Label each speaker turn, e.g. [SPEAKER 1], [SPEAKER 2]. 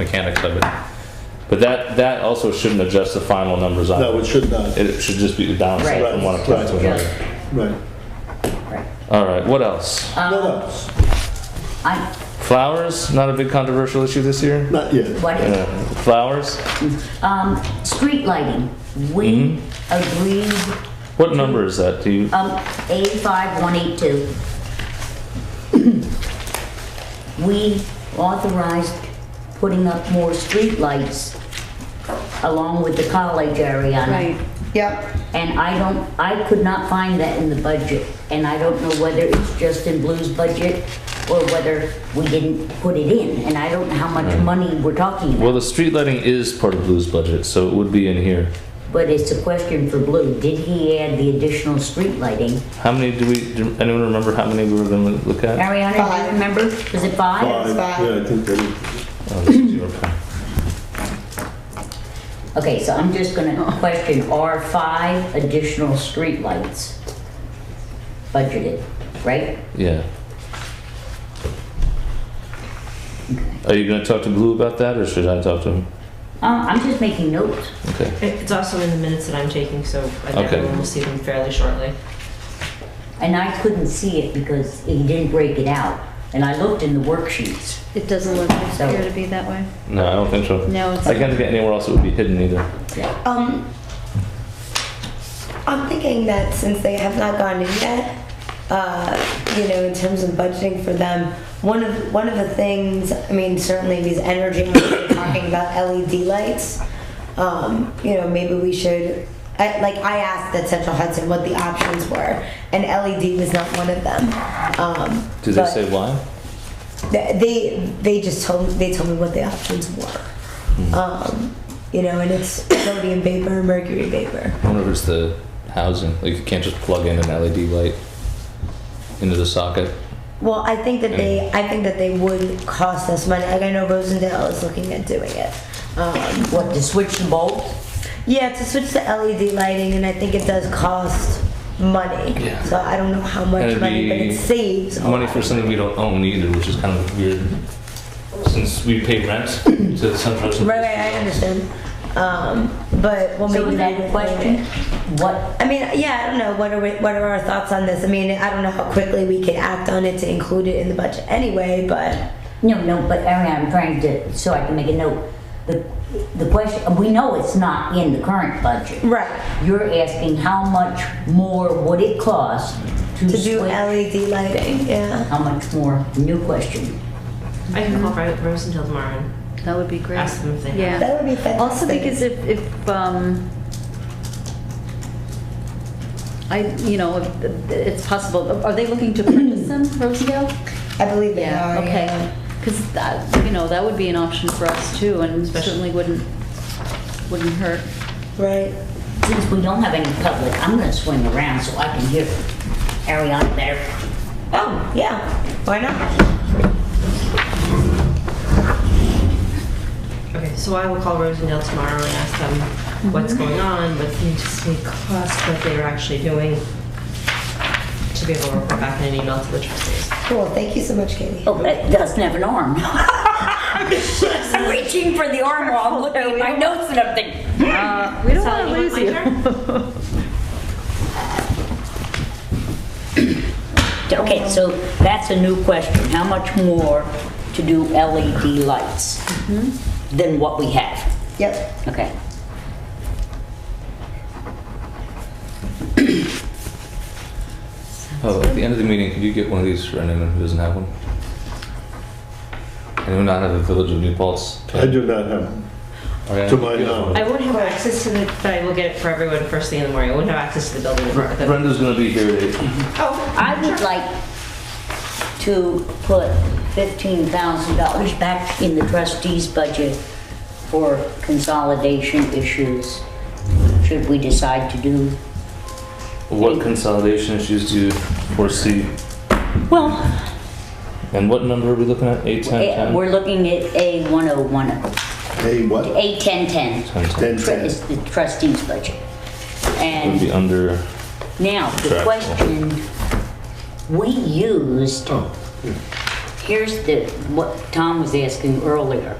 [SPEAKER 1] mechanics of it. But that, that also shouldn't adjust the final numbers on
[SPEAKER 2] No, it
[SPEAKER 1] it.
[SPEAKER 2] should not.
[SPEAKER 1] It should just be the downside
[SPEAKER 3] Right.
[SPEAKER 1] from one account to
[SPEAKER 2] Right.
[SPEAKER 1] another.
[SPEAKER 2] Right.
[SPEAKER 3] Right.
[SPEAKER 1] All right, what else?
[SPEAKER 2] What else?
[SPEAKER 3] I,
[SPEAKER 1] Flowers, not a big controversial issue this year?
[SPEAKER 2] Not yet.
[SPEAKER 3] what is,
[SPEAKER 1] Yeah, Flowers?
[SPEAKER 3] um, street lighting, we agreed,
[SPEAKER 1] What number is that? Do you,
[SPEAKER 3] um, eighty-five, one eight-two. We authorized putting up more street lights along with the college area.
[SPEAKER 4] Right, yep.
[SPEAKER 3] And I don't, I could not find that in the budget, and I don't know whether it's just in Blue's budget or whether we didn't put it in, and I don't know how much money we're talking about.
[SPEAKER 1] well, the street lighting is part of Blue's budget, so it would be in here.
[SPEAKER 3] But it's a question for Blue. Did he add the additional street lighting?
[SPEAKER 1] How many do we, do anyone remember how many we were gonna look at?
[SPEAKER 3] Ariana, do you
[SPEAKER 4] Five.
[SPEAKER 3] remember? Was it five?
[SPEAKER 2] Five,
[SPEAKER 4] Five.
[SPEAKER 2] yeah, I think that,
[SPEAKER 1] Oh, this is your pen.
[SPEAKER 3] Okay, so I'm just gonna question, are five additional streetlights budgeted, right?
[SPEAKER 1] Yeah. Are you gonna talk to Blue about that, or should I talk to him?
[SPEAKER 3] Uh, I'm just making notes.
[SPEAKER 1] Okay.
[SPEAKER 5] It's also in the minutes that I'm taking, so I think
[SPEAKER 1] Okay.
[SPEAKER 5] everyone will see them fairly shortly.
[SPEAKER 3] And I couldn't see it because he didn't break it out. And I looked in the worksheets.
[SPEAKER 4] It doesn't look
[SPEAKER 3] So-
[SPEAKER 4] appear to be that way.
[SPEAKER 1] No, I don't think so.
[SPEAKER 4] No, it's
[SPEAKER 1] I can't get anywhere else it would be hidden either.
[SPEAKER 3] Yeah.
[SPEAKER 6] Um, I'm thinking that since they have not gone in yet, uh, you know, in terms of budgeting for them, one of one of the things, I mean, certainly these energy ones are talking about LED lights. Um, you know, maybe we should. I, like I asked at Central Hudson what the options were, and LED was not one of them. Um,
[SPEAKER 1] Do they
[SPEAKER 6] but
[SPEAKER 1] say why?
[SPEAKER 6] th- They they just told they told me what the options were.
[SPEAKER 1] Hmm.
[SPEAKER 6] Um, you know, and it's sodium vapor, mercury vapor.
[SPEAKER 1] I wonder if it's the housing. Like you can't just plug in an LED light into the socket.
[SPEAKER 6] Well, I think that they, I think that they would cost us money. Like I know Rosendale is looking at doing it. Um,
[SPEAKER 3] What, to switch the bulbs?
[SPEAKER 6] yeah, to switch to LED lighting, and I think it does cost money.
[SPEAKER 1] Yeah.
[SPEAKER 6] So I don't know how
[SPEAKER 1] And
[SPEAKER 6] much
[SPEAKER 1] it'd
[SPEAKER 6] money, but
[SPEAKER 1] be
[SPEAKER 6] it saves. a
[SPEAKER 1] Money
[SPEAKER 6] lot.
[SPEAKER 1] for something we don't own either, which is kind of weird. Since we pay rent to the central.
[SPEAKER 6] Right, right, I understand. Um, but well,
[SPEAKER 3] So
[SPEAKER 6] maybe
[SPEAKER 3] is that
[SPEAKER 6] we-
[SPEAKER 3] a question? What,
[SPEAKER 6] I mean, yeah, I don't know. What are we, what are our thoughts on this? I mean, I don't know how quickly we could act on it to include it in the budget anyway, but.
[SPEAKER 3] no, no, but Ariana, I'm trying to, so I can make a note. The, the question, we know it's not in the current budget.
[SPEAKER 6] Right.
[SPEAKER 3] You're asking how much more would it cost to
[SPEAKER 6] To do
[SPEAKER 3] switch-
[SPEAKER 6] LED lighting, yeah.
[SPEAKER 3] How much more? New question.
[SPEAKER 5] I can call Ro- Rosendale tomorrow and
[SPEAKER 4] That would be great.
[SPEAKER 5] ask them if they have.
[SPEAKER 4] Yeah.
[SPEAKER 6] That would be fantastic.
[SPEAKER 4] Also because if, if, um, I, you know, if- it's possible, are they looking to purchase them, Rosendale?
[SPEAKER 6] I believe E they
[SPEAKER 4] Yeah,
[SPEAKER 6] are.
[SPEAKER 4] okay. Because that, you know, that would be an option for us too and certainly wouldn't, wouldn't hurt.
[SPEAKER 6] Right.
[SPEAKER 3] Since we don't have any public, I'm gonna swing around so I can hear Ariana better.
[SPEAKER 6] Oh, yeah. Why not?
[SPEAKER 5] Okay, Mhm. so I will call Rosendale tomorrow and ask them what's going on, what the anticipated cost, what they are actually doing, to be able to report back in an email to the trustees.
[SPEAKER 6] Cool. Thank you so much, Katie.
[SPEAKER 3] Oh, it doesn't have an arm. I'm reaching for the arm while I'm looking at my notes and I'm thinking,
[SPEAKER 4] We don't
[SPEAKER 5] Sally,
[SPEAKER 4] want to
[SPEAKER 5] you want
[SPEAKER 4] lose
[SPEAKER 5] my
[SPEAKER 4] you.
[SPEAKER 5] turn?
[SPEAKER 3] okay, so that's a new question. How much more to do LED lights than what we have?
[SPEAKER 6] Yep.
[SPEAKER 3] Okay.
[SPEAKER 1] Oh, at the end of the meeting, could you get one of these for anyone who doesn't have one? Anyone not have a Village of New Paltz?
[SPEAKER 2] I do not have,
[SPEAKER 1] Ariana?
[SPEAKER 2] to my knowledge.
[SPEAKER 5] I won't have access to the, but I will get it for everyone first thing in the morning. I won't have access to the building. at the-
[SPEAKER 1] Brenda's gonna be here at eight.
[SPEAKER 5] Oh,
[SPEAKER 3] I would like to put fifteen thousand dollars back in the trustees' budget for consolidation issues, should we decide to do.
[SPEAKER 1] What consolidation issues do you foresee?
[SPEAKER 3] Well,
[SPEAKER 1] And what number are we looking at? Eight, ten,
[SPEAKER 3] eh,
[SPEAKER 1] ten?
[SPEAKER 3] we're looking at A one oh one,
[SPEAKER 2] Hey, what?
[SPEAKER 3] A ten ten.
[SPEAKER 1] Ten, ten.
[SPEAKER 2] Ten
[SPEAKER 3] Tru-
[SPEAKER 2] cents.
[SPEAKER 3] It's the trustees' budget.
[SPEAKER 1] Would be
[SPEAKER 3] And
[SPEAKER 1] under,
[SPEAKER 3] now, the
[SPEAKER 1] Correct.
[SPEAKER 3] question, we used,
[SPEAKER 2] Oh, yeah.
[SPEAKER 3] here's the, what Tom was asking earlier.